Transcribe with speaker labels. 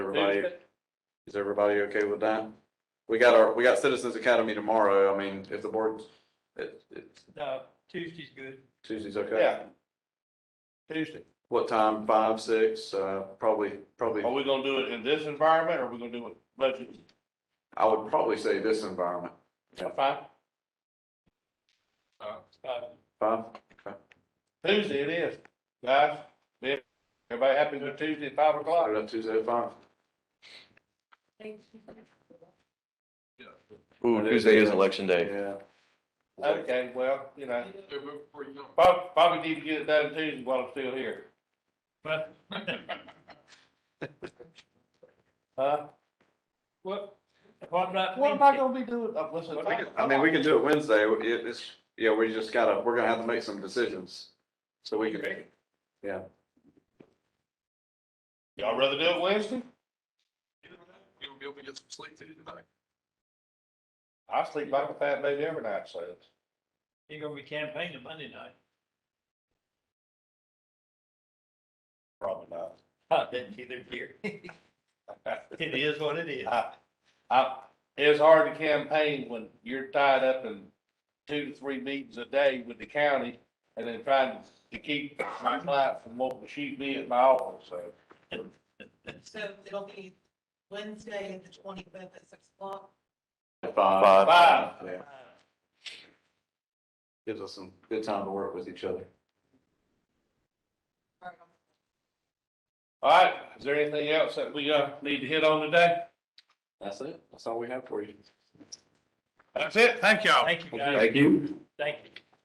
Speaker 1: everybody, is everybody okay with that? We got our, we got Citizens Academy tomorrow. I mean, if the board, it, it,
Speaker 2: No, Tuesday's good.
Speaker 1: Tuesday's okay?
Speaker 3: Yeah. Tuesday.
Speaker 1: What time? Five, six, uh, probably, probably,
Speaker 3: Are we gonna do it in this environment or are we gonna do it budget?
Speaker 1: I would probably say this environment.
Speaker 3: Fine.
Speaker 2: Uh,
Speaker 1: Five?
Speaker 3: Tuesday it is. Guys, yeah. everybody happy with Tuesday at five o'clock?
Speaker 1: Put it up Tuesday at five?
Speaker 4: Ooh, Tuesday is election day.
Speaker 1: Yeah.
Speaker 3: Okay, well, you know. Probably, probably need to get it done Tuesday while I'm still here.
Speaker 2: But
Speaker 3: Huh?
Speaker 2: what, what about
Speaker 3: What am I
Speaker 2: Wednesday?
Speaker 3: gonna be doing? Uh, Listen.
Speaker 1: I mean, we can do it Wednesday. It, it's, yeah, we just gotta, we're gonna have to make some decisions. So we can,
Speaker 3: Y'all rather do it Wednesday?
Speaker 5: You'll be able to get some sleep tonight.
Speaker 3: I sleep like a fat baby every night, so.
Speaker 2: You're gonna be campaigning Monday night.
Speaker 3: Probably not.
Speaker 2: I didn't either here. It is what it is.
Speaker 3: I, I, it's hard to campaign when you're tied up in two to three meetings a day with the county and then trying to keep my client from wanting to shoot me at my office, so.
Speaker 6: So it'll be Wednesday, the twenty-fifth at six o'clock.
Speaker 1: five.
Speaker 4: Five.
Speaker 3: Five.
Speaker 1: Yeah,
Speaker 2: Oh.
Speaker 1: gives us some good time to work with each other.
Speaker 6: All right, I'm-
Speaker 3: All right, is there anything else that we, uh, need to hit on today?
Speaker 1: That's it. That's all we have for you.
Speaker 3: That's it, thank y'all.
Speaker 2: Thank you, guys.
Speaker 1: Thank you.
Speaker 2: Thank you.